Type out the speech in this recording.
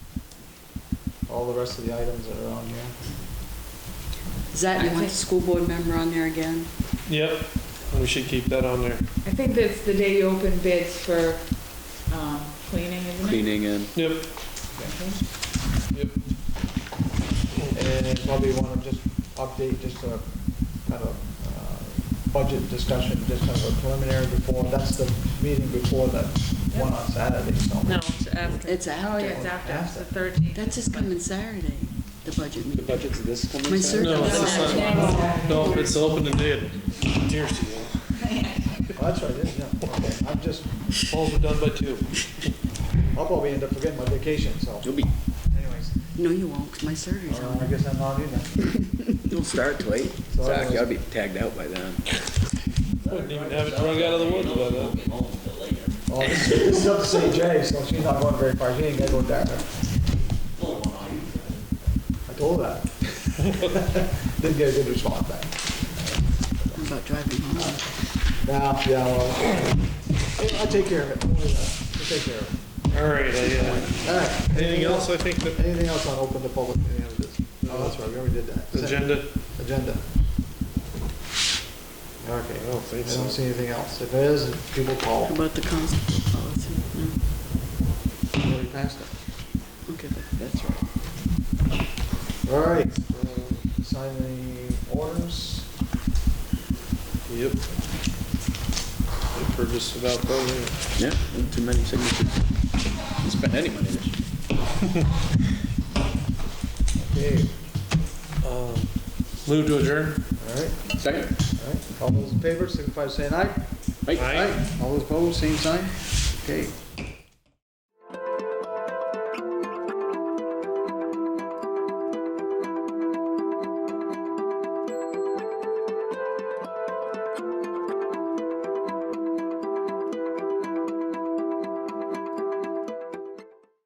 all the rest of the items that are on here. Is that, you want I the think- school board member on there again? Yep, we should keep that on there. I think that's the day you open bids for um, cleaning, isn't it? cleaning and Yep, Cleaning. And probably want to just update, just a kind of uh, budget discussion, just kind of a preliminary before, that's the meeting before that one on Saturday, so. No, it's after. It's Oh, yeah, after. it's after, it's the 13th. That's just coming Saturday, the budget the meeting. budget's this coming My Saturday? surgeon No, it's said- not. no, it's open today at Deer Season. Oh, That's right, it is, yeah, okay, I'm just, Polls are done by two. I'll probably end up forgetting my vacation, so You'll be, anyways, No, you won't, 'cause my surgery's uh, I on. guess I'm not either. you'll start to wait. So Zach, anyways- you'll be tagged out by then. Wouldn't even have it drug out of the woods by then. Oh, this this is up to St. Jay, so she's not going very far, she ain't gonna go down there. I told her that. Didn't get a good response back. Oh. I'm about driving home. Nah, yeah, well, I'll take care of it, Don't worry about it. I'll take care of it. All right, I, uh, All right. anything else I think that Anything else on open to public, any of this? Oh, that's right, we already did that. agenda? Agenda. Okay, I don't think I don't so. see anything else. If there is, people call. How about the constable policy? No, We already passed it. okay, that's right. All right, uh, sign the orders. Yep. For just about building. Yeah, not too many signatures. Didn't Spend any money this year. Okay, Um, Move to adjourn? all right, Second? all right. All those in favor, signify by saying aye. Mike? Aye. All those opposed, same sign. Okay,